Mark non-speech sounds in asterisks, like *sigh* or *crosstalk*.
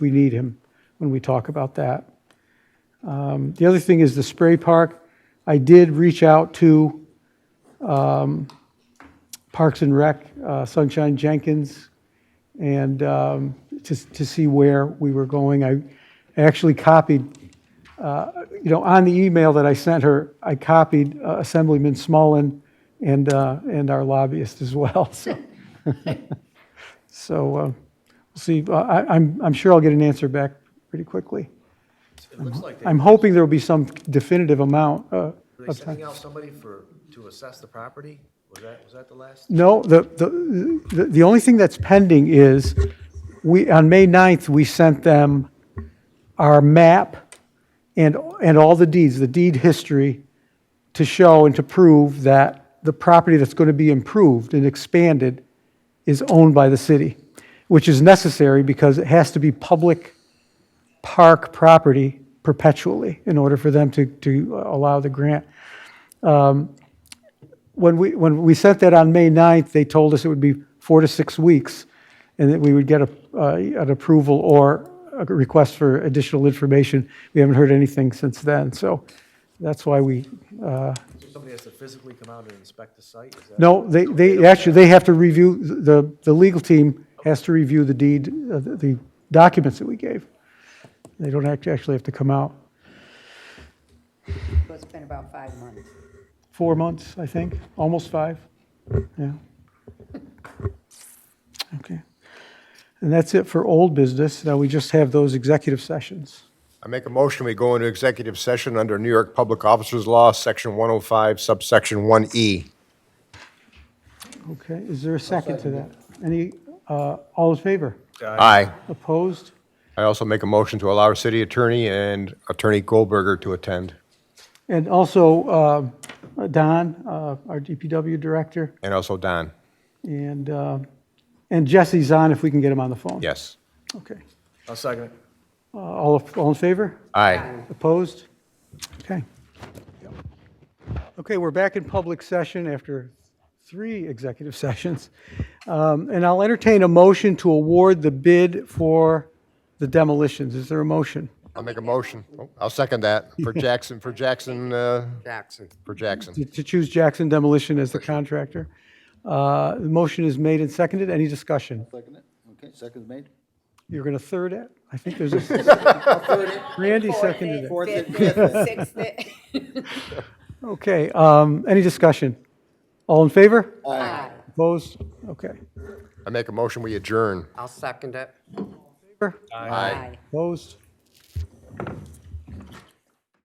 we need him when we talk about that. Um, The other thing is the spray park. I did reach out to um, Parks and Rec, uh, Sunshine Jenkins, and um, to to see where we were going. I actually copied, uh, you know, on the email that I sent her, I copied uh, Assemblyman Smullen and uh, and our lobbyist as well, *laughs* so. So uh, we'll see, Uh, I- I'm I'm sure I'll get an answer back pretty quickly. It looks like they, I'm hoping there'll be some definitive amount uh, were they of time. sending out somebody for, to assess the property? Was that, was that the last? No, the, the, the- the only thing that's pending is, we, on May 9th, we sent them our map and, and all the deeds, the deed history, to show and to prove that the property that's going to be improved and expanded is owned by the city, which is necessary because it has to be public park property perpetually in order for them to, to allow the grant when we, when we sent that on May 9th, they told us it would be four to six weeks, and that we would get a, uh, an approval or a request for additional information. We haven't heard anything since then, so that's why we, uh, So Somebody has to physically come out and inspect the site? Is that- no, they, they, actually, they have to review, the, the legal team has to review the deed, uh, the the documents that we gave. They don't act- actually have to come out. So it's been about five months. Four months, I think, almost five, yeah. Okay. And that's it for old business. Now we just have those executive sessions. I make a motion, we go into executive session under New York Public Officers Law, Section 105, subsection E. 1E. Okay, is there a second to that? Any, uh, all in favor? Aye. Opposed? I also make a motion to allow our city attorney and Attorney Goldberger to attend, And also, uh, Don, uh, our DPW director, and also Don. and, uh, and Jesse's on if we can get him on the phone. Yes. Okay. I'll second it. Uh, All, all in favor? Aye. Opposed? Okay. Okay, we're back in public session after three executive *laughs* sessions. Um, And I'll entertain a motion to award the bid for the demolitions. Is there a motion? I'll make a motion. Oh, I'll second that for Jackson, for Jackson, uh, Jackson. for Jackson. To choose Jackson Demolition as the contractor. Uh, The motion is made and seconded. Any discussion? Second it? Okay, second's made. You're going to third it? I think *laughs* there's a, *laughs* Randy seconded it. Fourth it, fifth it, sixth it. Okay, um, any discussion? All in favor? Aye. Opposed? Okay. I make a motion, we adjourn. I'll second it. Favor? Aye. Opposed?